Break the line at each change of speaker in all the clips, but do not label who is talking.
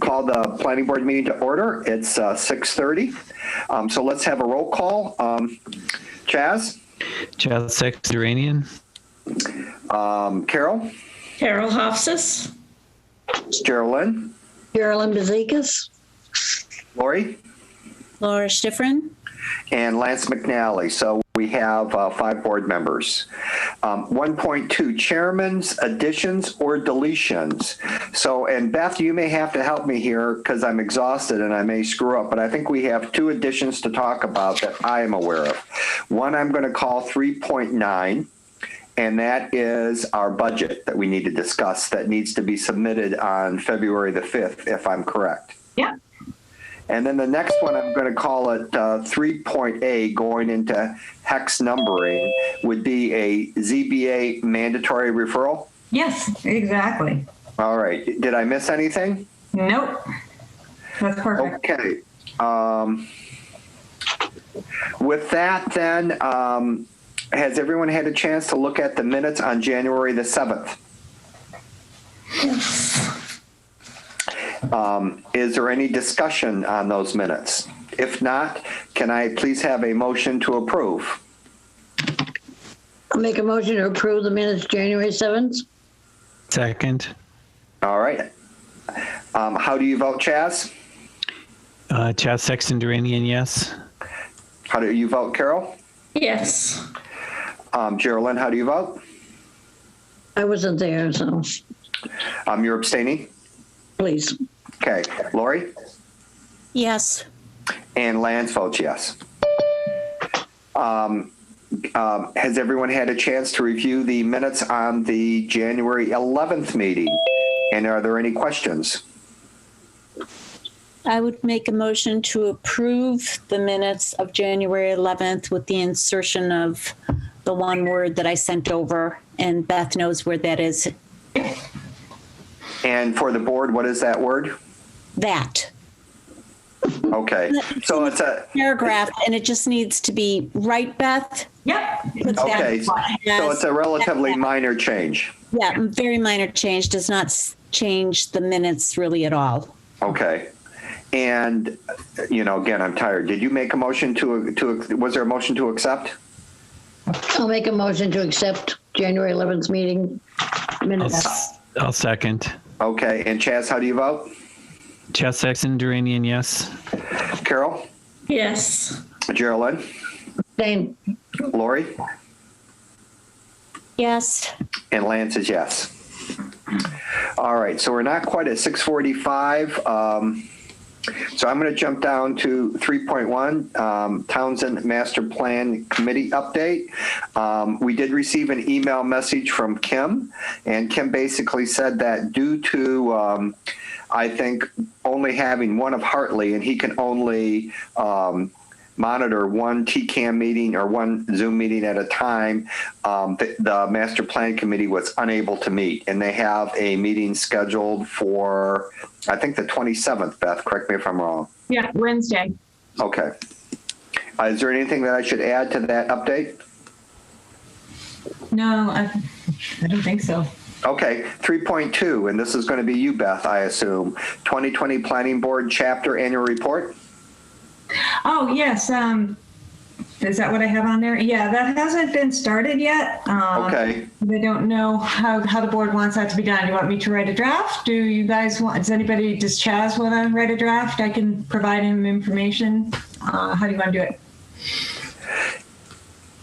call the planning board meeting to order. It's uh, 6:30. Um, So let's have a roll call. Um, Chaz,
Chaz Sexturanian.
um, Carol,
Carol Hofsis.
Geraldine,
Carolyn Bezekas.
Lori,
Laura Schifrin.
and Lance McNally. So we have uh, five board members. Um, 1.2 Chairman's additions or deletions. So, and Beth, you may have to help me here because I'm exhausted and I may screw up, but I think we have two additions to talk about that I am aware of. One I'm going to call 3.9. And that is our budget that we need to discuss that needs to be submitted on February the 5th, if I'm correct.
Yeah.
And then the next one, I'm going to call it uh, 3.A, going into hex numbering, would be a ZBA mandatory referral.
Yes, exactly.
All right. Did I miss anything?
Nope. That's perfect.
Okay. Um, with that, then, um, has everyone had a chance to look at the minutes on January the 7th? Um, is there any discussion on those minutes? If not, can I please have a motion to approve?
I make a motion to approve the minutes January 7th.
Second.
All right. Um, how do you vote, Chaz?
Uh, Chaz Sexturanian, yes.
How do you vote, Carol?
Yes.
Um, Geraldine, how do you vote?
I wasn't there, so
Um, you're abstaining?
please.
Okay. Lori?
Yes.
And Lance votes yes. Um, um, has everyone had a chance to review the minutes on the January 11th meeting? And are there any questions?
I would make a motion to approve the minutes of January 11th with the insertion of the one word that I sent over, and Beth knows where that is.
And for the board, what is that word?
That
Okay. So it's a,
paragraph, and it just needs to be right, Beth?
Yep.
Put that-
okay. So it's a relatively minor change.
Yeah, very minor change, does not s- change the minutes really at all.
Okay. And, you know, again, I'm tired. Did you make a motion to, to, was there a motion to accept?
I'll make a motion to accept January 11th meeting
I'll,
minutes.
s- I'll second.
Okay. And Chaz, how do you vote?
Chaz Sexturanian, yes.
Carol?
Yes.
Geraldine?
Dane,
Lori?
Yes,
And Lance is yes. All right, so we're not quite at 645. um, So I'm going to jump down to 3.1, um, Townsend Master Plan Committee update. Um, We did receive an email message from Kim, and Kim basically said that due to, um, I think, only having one of Hartley, and he can only um, monitor one TCAM meeting or one Zoom meeting at a time, um, the, the master plan committee was unable to meet, and they have a meeting scheduled for, I think, the 27th. Beth, correct me if I'm wrong.
Yeah, Wednesday.
Okay. Uh, is there anything that I should add to that update?
No, I, I don't think so.
Okay, 3.2, and this is going to be you, Beth, I assume. 2020 Planning Board Chapter Annual Report.
Oh, yes. Um, is that what I have on there? Yeah, that hasn't been started yet. Um,
Okay.
I don't know how, how the board wants that to be done. You want me to write a draft? Do you guys want, does anybody, does Chaz want to write a draft? I can provide him information. Uh, how do you want to do it?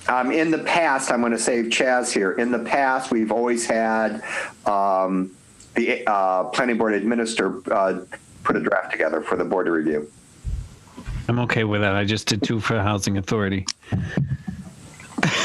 Um, in the past, I'm going to save Chaz here. In the past, we've always had um, the uh, Planning Board Administrator uh, put a draft together for the board to review.
I'm okay with that. I just did two for Housing Authority.